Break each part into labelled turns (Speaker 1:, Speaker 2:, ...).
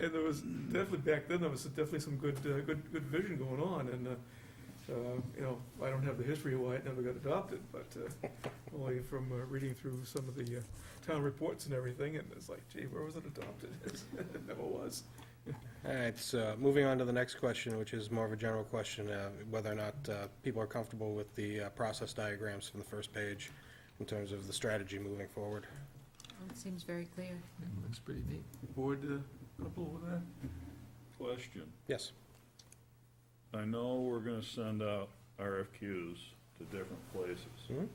Speaker 1: and there was definitely, back then, there was definitely some good, uh, good, good vision going on, and, uh, uh, you know, I don't have the history of why it never got adopted, but, uh, only from uh, reading through some of the uh, town reports and everything, and it's like, gee, where was it adopted? It never was.
Speaker 2: All right, so moving on to the next question, which is more of a general question, uh, whether or not uh, people are comfortable with the uh, process diagrams from the first page in terms of the strategy moving forward.
Speaker 3: It seems very clear.
Speaker 4: Looks pretty neat.
Speaker 5: Board, uh, couple with that? Question.
Speaker 2: Yes,
Speaker 5: I know we're gonna send out RFQs to different places.
Speaker 2: Mhm.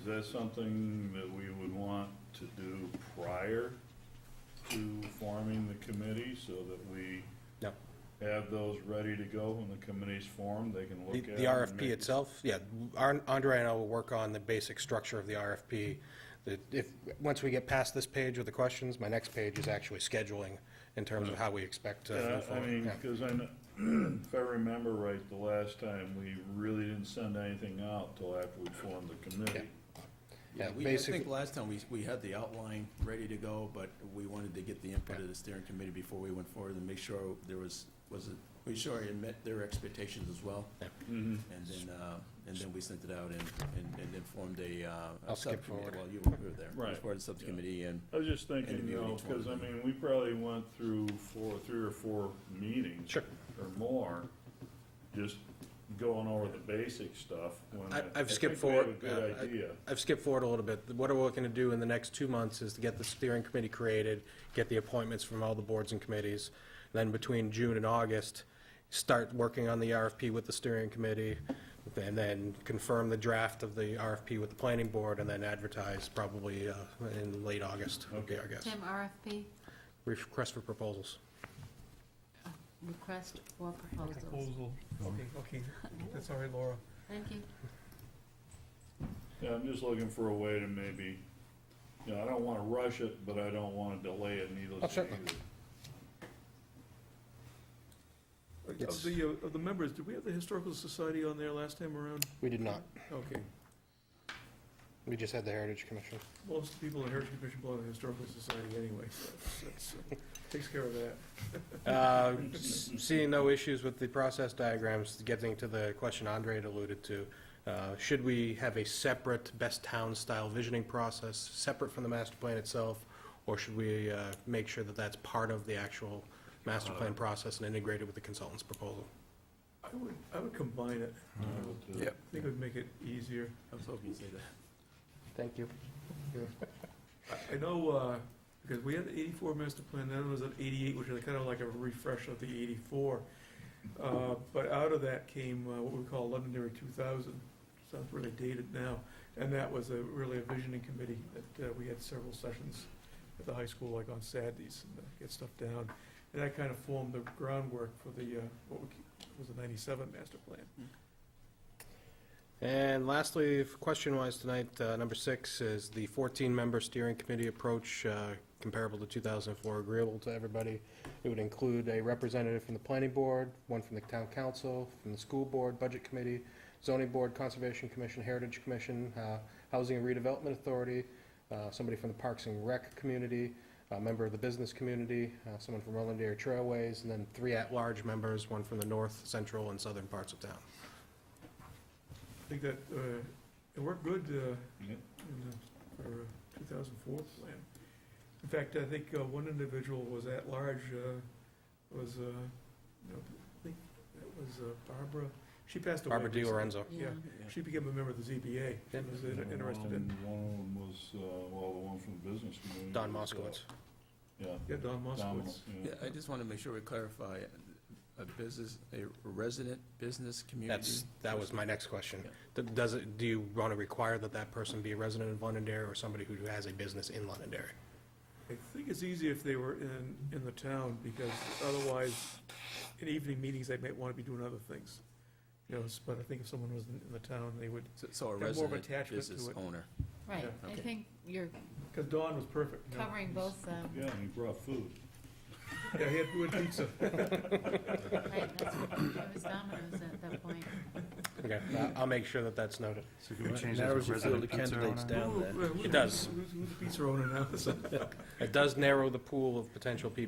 Speaker 5: Is that something that we would want to do prior to forming the committee so that we
Speaker 2: no.
Speaker 5: have those ready to go when the committee's formed, they can look
Speaker 2: The
Speaker 5: at?
Speaker 2: the
Speaker 5: 'em and
Speaker 2: RFP
Speaker 5: make-
Speaker 2: itself, yeah, Ar- Andre and I will work on the basic structure of the RFP. That if, once we get past this page with the questions, my next page is actually scheduling in terms of how we expect to
Speaker 5: Uh, Yeah,
Speaker 2: move
Speaker 5: I
Speaker 2: forward.
Speaker 5: mean,
Speaker 2: Yeah.
Speaker 5: because I know, if I remember right, the last time, we really didn't send anything out till after we formed the committee.
Speaker 2: Yeah,
Speaker 6: Yeah, we, I
Speaker 2: basically-
Speaker 6: think last time we, we had the outline ready to go, but we wanted to get the input of the steering committee before we went forward and make sure there was, was it, we sure it met their expectations as well.
Speaker 5: Mhm.
Speaker 6: And then, uh, and then we sent it out and, and, and then formed a, uh. a
Speaker 2: I'll skip
Speaker 6: subcommittee.
Speaker 2: forward.
Speaker 6: Well, you were there. It was
Speaker 5: Right.
Speaker 6: part of the subcommittee and,
Speaker 5: I was just thinking, you
Speaker 6: Interviewing
Speaker 5: know,
Speaker 6: each one
Speaker 5: because, I
Speaker 6: of them.
Speaker 5: mean, we probably went through four, three or four meetings.
Speaker 2: Sure.
Speaker 5: Or more, just going over the basic stuff. when
Speaker 2: I-
Speaker 5: I-
Speaker 2: I've skipped
Speaker 5: I
Speaker 2: forward.
Speaker 5: think we have a
Speaker 2: uh,
Speaker 5: good
Speaker 2: I-
Speaker 5: idea.
Speaker 2: I've skipped forward a little bit. What we're looking to do in the next two months is to get the steering committee created, get the appointments from all the boards and committees. Then between June and August, start working on the RFP with the steering committee, and then confirm the draft of the RFP with the planning board, and then advertise probably uh, in late August, would be our guess.
Speaker 3: Tim, RFP,
Speaker 2: Request for proposals.
Speaker 3: request for proposals.
Speaker 1: Proposal, okay, okay, that's all right, Laura.
Speaker 3: Thank you.
Speaker 5: Yeah, I'm just looking for a way to maybe, you know, I don't want to rush it, but I don't want to delay it
Speaker 2: Oh,
Speaker 5: needlessly
Speaker 2: certainly.
Speaker 5: either.
Speaker 1: Of
Speaker 2: Yes.
Speaker 1: the, uh, of the members, did we have the Historical Society on there last time around?
Speaker 2: We did not.
Speaker 1: Okay,
Speaker 2: We just had the Heritage Commission.
Speaker 1: most of the people in Heritage Commission belong to the Historical Society anyway, so that's, uh, takes care of that.
Speaker 2: Uh, s- Seeing no issues with the process diagrams, getting to the question Andre had alluded to, uh, should we have a separate best town-style visioning process, separate from the master plan itself? Or should we uh, make sure that that's part of the actual master plan process and integrated with the consultant's proposal?
Speaker 1: I would, I would combine it,
Speaker 5: But, uh,
Speaker 4: Yep.
Speaker 1: I think it would make it easier.
Speaker 6: I was hoping you'd say that.
Speaker 2: Thank you.
Speaker 1: I- I know, uh, because we had the eighty-four master plan, then it was an eighty-eight, which is kind of like a refresh of the eighty-four. Uh, But out of that came uh, what we call Londonderry two thousand, sounds really dated now. And that was a, really a visioning committee that uh, we had several sessions at the high school, like on Saturdays, and uh, get stuff down. And that kind of formed the groundwork for the, uh, what we c- was the ninety-seven master plan.
Speaker 2: And lastly, f- question-wise tonight, uh, number six is the 14-member steering committee approach uh, comparable to 2004, agreeable to everybody. It would include a representative from the planning board, one from the town council, from the school board, budget committee, zoning board, conservation commission, heritage commission, uh, housing and redevelopment authority, uh, somebody from the parks and rec community, a member of the business community, uh, someone from Roland Dairy Trailways, and then three at-large members, one from the north, central, and southern parts of town.
Speaker 1: I think that, uh, it worked good, uh,
Speaker 5: yeah.
Speaker 1: in the, uh, for a 2004 plan. In fact, I think uh, one individual was at large, uh, was, uh, no, I think that was uh, Barbara, she passed away.
Speaker 2: Barbara Di
Speaker 1: recently.
Speaker 2: Lorenzo.
Speaker 1: Yeah. She became a member of the ZBA, she
Speaker 2: Yeah.
Speaker 1: was in- interested
Speaker 5: One-
Speaker 1: in,
Speaker 5: One of them was, uh, well, the one from the business community.
Speaker 2: Don
Speaker 5: was, uh,
Speaker 2: Moskowitz.
Speaker 5: Yeah.
Speaker 1: yeah, Don
Speaker 5: Don,
Speaker 1: Moskowitz.
Speaker 5: yeah.
Speaker 6: Yeah, I just want to make sure we clarify, uh, a business, a resident business community.
Speaker 2: That's, that was my next question.
Speaker 6: Yeah.
Speaker 2: Th- Does it, do you want to require that that person be a resident of Londonderry or somebody who has a business in Londonderry?
Speaker 1: I think it's easy if they were in, in the town, because otherwise, in evening meetings, they might want to be doing other things. You know, s- but I think if someone was in in the town, they would,
Speaker 6: So- So a
Speaker 1: Got more of
Speaker 6: resident
Speaker 1: attachment to
Speaker 6: business
Speaker 1: it.
Speaker 6: owner.
Speaker 3: Right,
Speaker 1: Yeah.
Speaker 3: I
Speaker 6: Okay.
Speaker 3: think you're
Speaker 1: because Don was perfect. you know.
Speaker 3: covering both, um,
Speaker 5: Yeah, and he brought food.
Speaker 1: Yeah, he had food and pizza.
Speaker 3: right, that's, it was Domino's at that point.
Speaker 2: Okay, I- I'll make sure that that's noted.
Speaker 4: So can we change that to resident pizza owner?
Speaker 1: Who- who-
Speaker 2: It does.
Speaker 1: Who's who's the pizza owner now?
Speaker 2: It does narrow the pool of potential people